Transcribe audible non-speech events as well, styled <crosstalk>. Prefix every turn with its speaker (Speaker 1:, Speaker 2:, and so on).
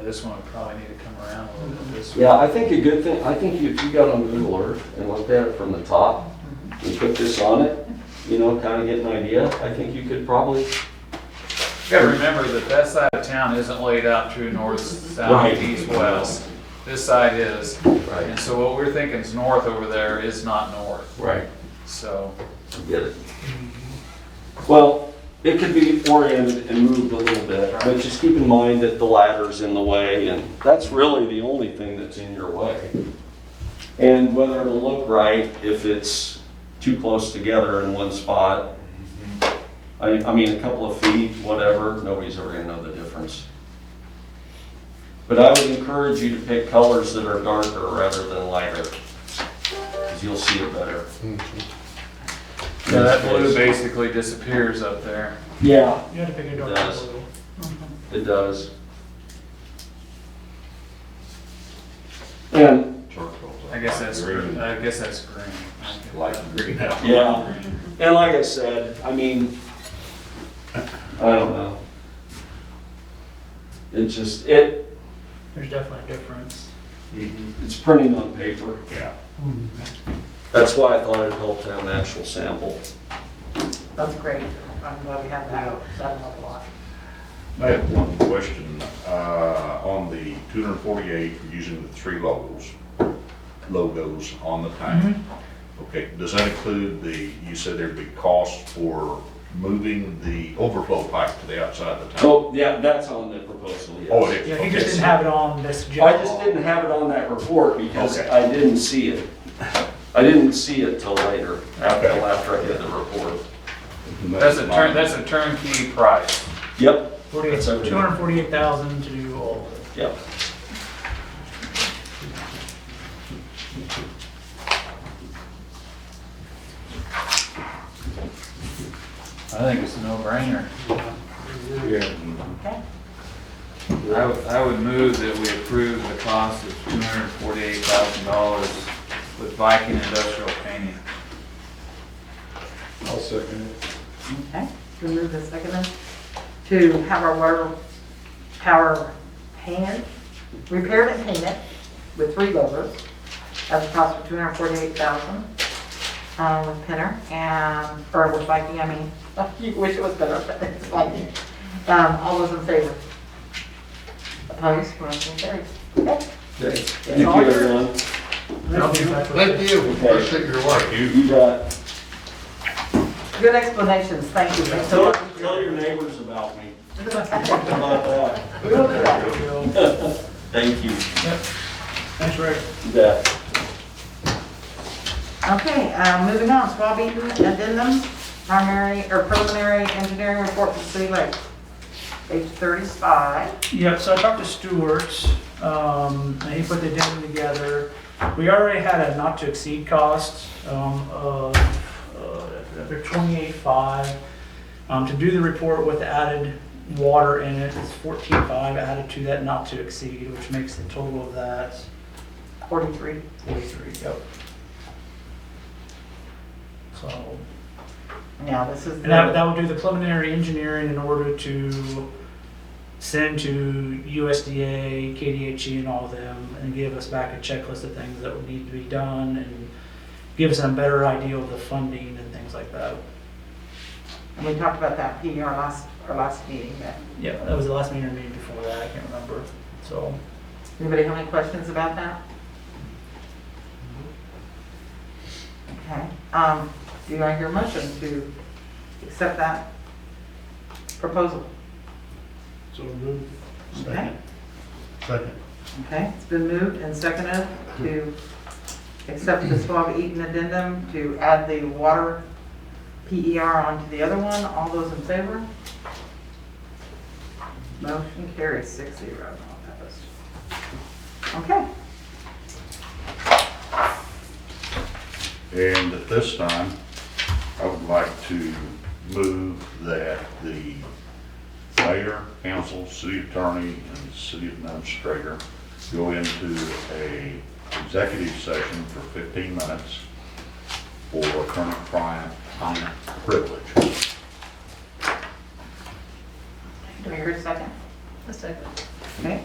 Speaker 1: This one would probably need to come around a little bit this way.
Speaker 2: Yeah, I think a good thing, I think if you got on Google Earth and looked at it from the top and put this on it, you know, kind of get an idea, I think you could probably,
Speaker 1: You gotta remember that that side of town isn't laid out true north, south,
Speaker 2: Right.
Speaker 1: east, west. This side is.
Speaker 2: Right.
Speaker 1: And so what we're thinking is north over there is not north,
Speaker 2: right,
Speaker 1: so.
Speaker 2: get it. Well, it could be oriented and moved a little bit, but just keep in mind that the ladder's in the way and that's really the only thing that's in your way. And whether it'll look right if it's too close together in one spot. I, I mean, a couple of feet, whatever, nobody's ever gonna know the difference. But I would encourage you to pick colors that are darker rather than lighter, because you'll see it better.
Speaker 1: So that blue basically disappears up there.
Speaker 2: Yeah,
Speaker 3: You had to pick a dark
Speaker 2: Yes.
Speaker 3: blue.
Speaker 2: it does. And
Speaker 1: I guess that's, green. I guess that's green. Light green.
Speaker 2: Yeah, and like I said, I mean, I don't know. It just, it,
Speaker 3: There's definitely a difference.
Speaker 2: it's printing on paper.
Speaker 1: Yeah.
Speaker 2: That's why I thought it helped to have an actual sample.
Speaker 4: That's great. I'm glad we have that. That'll help a lot.
Speaker 5: I have one question, uh, on the two hundred and forty-eight, using the three logos, logos on the tank.
Speaker 3: Mm-hmm.
Speaker 5: Okay, does that include the, you said there'd be costs for moving the overflow pipe to the outside of the tank?
Speaker 2: Oh, yeah, that's on the proposal, yes.
Speaker 5: Oh, it is.
Speaker 3: Yeah,
Speaker 5: Okay.
Speaker 3: he just didn't have it on this
Speaker 2: I
Speaker 3: agenda.
Speaker 2: just didn't have it on that report because
Speaker 5: Okay.
Speaker 2: I didn't see it. I didn't see it till later, after,
Speaker 5: Okay.
Speaker 2: after I had the report.
Speaker 1: That's a turn, that's a turnkey price.
Speaker 2: Yep,
Speaker 3: Forty-eight,
Speaker 2: That's okay.
Speaker 3: two hundred and forty-eight thousand to do all of it.
Speaker 2: yep.
Speaker 1: I think it's a no-brainer.
Speaker 4: Okay.
Speaker 1: I would, I would move that we approve the cost of two hundred and forty-eight thousand dollars with Viking Industrial Painting.
Speaker 4: Okay. Can we move this second then? To have our water tower painted, repaired and painted with three levels at the cost of two hundred forty-eight thousand. Um, with Pinner and, or with Viking, I mean, <laughs> you wish it was better, but it's Viking. Um, all those in favor? Opposed? Motion carries. Okay.
Speaker 2: Thank you, everyone.
Speaker 3: That's exactly what it
Speaker 6: Thank
Speaker 3: is.
Speaker 6: you, appreciate your work.
Speaker 2: You bet.
Speaker 4: Good explanations. Thank you. Thanks a
Speaker 2: Tell,
Speaker 4: lot.
Speaker 2: tell your neighbors about <laughs> me. About that.
Speaker 3: We will do that.
Speaker 2: Thank you.
Speaker 3: Thanks, Rick.
Speaker 2: You bet.
Speaker 4: Okay, uh, moving on, Swab Eaton addendum, primary, or preliminary engineering report for City Lake. Page 35.
Speaker 3: Yep, so I talked to Stewart, um, and he put the addendum together. We already had a not to exceed cost, um, of, uh, twenty-eight five. Um, to do the report with added water in it, it's fourteen five added to that not to exceed, which makes the total of that
Speaker 4: 43.
Speaker 3: forty-three, yep. So,
Speaker 4: Now, this is
Speaker 3: and that,
Speaker 4: the
Speaker 3: that will do the preliminary engineering in order to send to USDA, KDHE E, and all of them and give us back a checklist of things that would need to be done and give us a better idea of the funding and things like that.
Speaker 4: and we talked about that PR last, our last meeting, but
Speaker 3: Yeah, that was the last meeting or meeting before that, I can't remember. So,
Speaker 4: anybody have any questions about that? Okay, um, do I hear a motion to accept that proposal? So moved. Okay.
Speaker 6: Second.
Speaker 4: Okay, it's been moved and seconded to accept the Swab Eaton addendum to add the water PER onto the other one. All those in favor? Motion carries six zero. Okay,
Speaker 5: And at this time, I would like to move that the mayor, council, city attorney, and city administrator go into a executive session for fifteen minutes for current client client privilege.
Speaker 4: do I hear a second? A second. Okay,